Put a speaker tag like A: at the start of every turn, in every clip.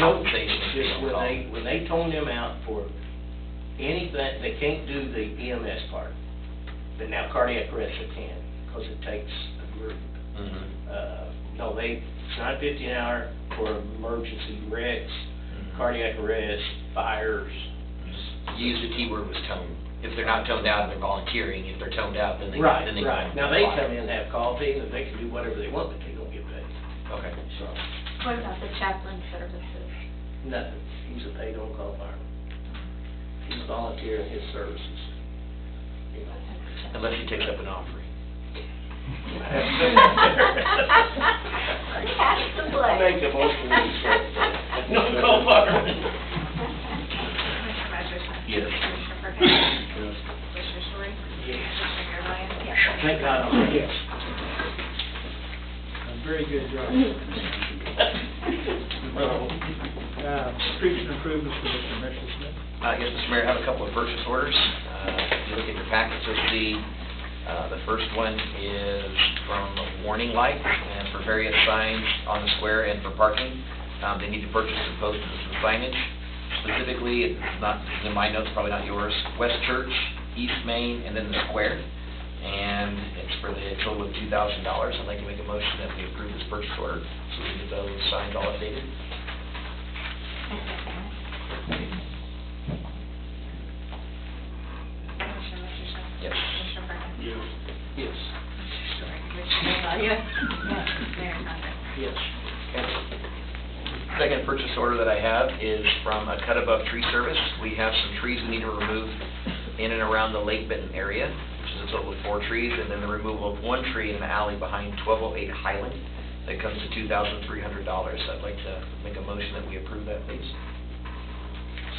A: note things. they
B: Just
A: don't
B: when
A: call.
B: they, when they tone them out for anything, they can't do the EMS part. But now cardiac arrest they can, because it takes a group.
A: Mhm.
B: Uh, no, they, it's not fifty an hour for emergency wrecks,
A: Mhm.
B: cardiac arrest, fires.
A: Use the T word was tone. If they're not toned out, they're volunteering. If they're toned out, then they,
B: Right,
A: then they.
B: right. Now, they come in, and have coffee, and they can do whatever they want, but they don't get paid,
A: Okay.
B: so,
C: What about the chaplain services?
B: nothing. He's a paid on-call fireman. He's volunteering his services. You know.
A: Unless he takes up an offering.
C: Pass the plate.
B: Make a motion to accept the no-call fireman.
D: Commissioner Rogers?
A: Yes.
D: Commissioner Perkins?
B: Yes.
D: Commissioner Story?
B: Yes.
D: Commissioner Garvelia?
B: Thank God, I'm yes.
E: A very good job. Uh, Streets and improvements, Commissioner Mitchell Smith.
A: Uh, Yes, Mr. Mayor, I have a couple of purchase orders. Uh, If you look at your packets, you'll see uh, the first one is from Warning Light and for various signs on the square and for parking. Um, They need to purchase and post some signage. Specifically, it's not, it's in my notes, probably not yours, West Church, East Main, and then the square. And it's for the total of $2,000. I'd like to make a motion that we approve this purchase order so we can get those signs all updated.
D: Commissioner Merschman?
A: Yes.
D: Commissioner Perkins?
B: Yes,
D: Commissioner Story? Commissioner Garvelia? Yes. Mayor Condon?
B: yes.
A: Second purchase order that I have is from a Cut Above Tree Service. We have some trees we need to remove in and around the Lake Benton area, which is a total of four trees, and then the removal of one tree in an alley behind 1208 Highland. That comes to $2,300. I'd like to make a motion that we approve that, please.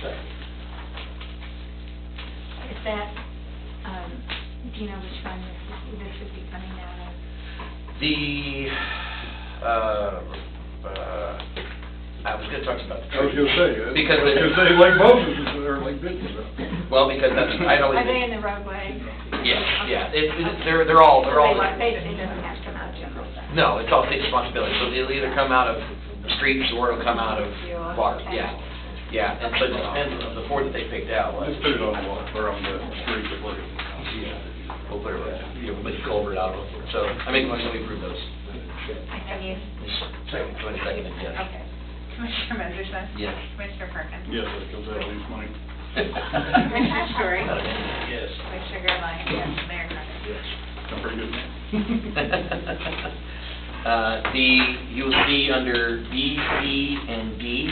B: Second.
C: Is that, um, do you know which one this is, this would be coming out of?
A: The, uh, uh, I was going to talk to you about the
F: I was
A: trees.
F: gonna say, uh,
A: Because
F: I was
A: it-
F: gonna say Lake Moses is there, Lake Benton's there.
A: Well, because that's, I'd always...
C: Are they in the roadway?
A: Yes, yeah,
C: Okay.
A: It- it- they're, they're all, Oh, they're all...
C: So They, they doesn't have to come out of general fund?
A: No, it's all state responsibility, so it'll either come out of streets or it'll come out of water, yeah. Yeah, and so, and the four that they picked out was,
F: Just put it on the wall, or on the street, whatever.
A: we'll put it, right- you know, make a culvert out of it. So I make a motion that we approve those.
C: I have you.
A: Second, do you want to second it? Yes.
D: Okay. Commissioner Merschman?
A: Yes.
D: Commissioner Perkins?
F: Yes, that comes out of lease money.
D: Commissioner Story?
B: Yes.
D: Commissioner Garvelia? Yes. Mayor Condon?
F: Yes. I'm pretty good man.
A: Uh, The, you'll see under B, C, and D,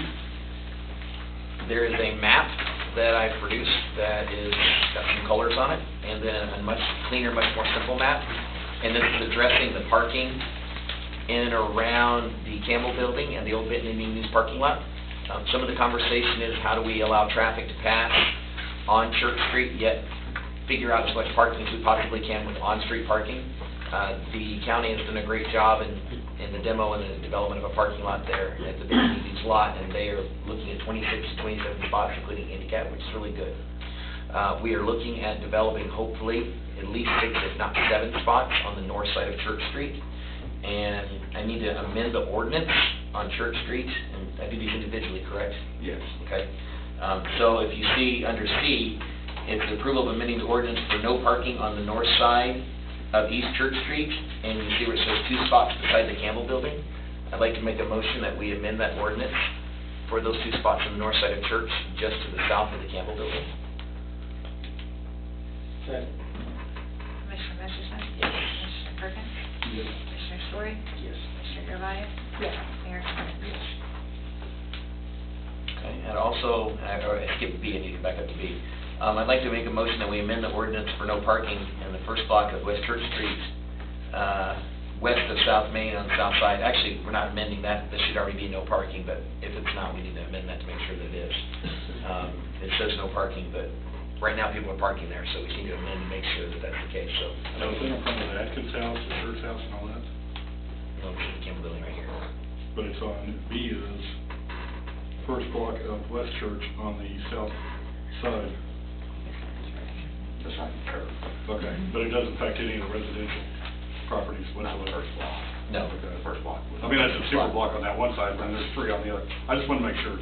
A: there is a map that I produced that is, got some colors on it, and then a much cleaner, much more simple map. And this is addressing the parking in and around the Campbell Building and the old Benton Indian News parking lot. Um, Some of the conversation is how do we allow traffic to pass on Church Street, yet figure out as much parking as we possibly can with on-street parking. Uh, The county has done a great job in, in the demo and the development of a parking lot there at the Big Easy's lot, and they are looking at 26 to 27 spots, including handicap, which is really good. Uh, We are looking at developing hopefully at least six, if not seven spots on the north side of Church Street. And I need to amend the ordinance on Church Street, and I do these individually, correct?
F: Yes.
A: Okay. Um, So if you see under C, it's the approval of amending the ordinance for no parking on the north side of East Church Street, and you see where it says two spots beside the Campbell Building. I'd like to make a motion that we amend that ordinance for those two spots on the north side of Church, just to the south of the Campbell Building.
B: Second.
D: Commissioner Merschman?
A: Yes.
D: Commissioner Perkins?
B: Yes.
D: Commissioner Story?
B: Yes.
D: Commissioner Garvelia? Yes. Mayor Condon?
B: Yes.
A: Okay, and also, I or I skipped B, I need to back up to B. Um, I'd like to make a motion that we amend the ordinance for no parking in the first block of West Church Street, uh, west of South Main on the south side. Actually, we're not amending that, there should already be no parking, but if it's not, we need to amend that to make sure that it is. Um, It says no parking, but right now people are parking there, so we need to amend to make sure that that's the case, so.
F: Now, is it in front of the Atkins house, the Hurst house and all that?
A: No, it's the Campbell Building right here.
F: But it's on, B is first block of West Church on the south side.
B: That's not fair.
F: Okay. But it doesn't affect any of the residential properties whatsoever.
A: No.
F: Okay.
A: first block.
F: I mean, that's a super block on that one side, and there's three on the other. I just want to make sure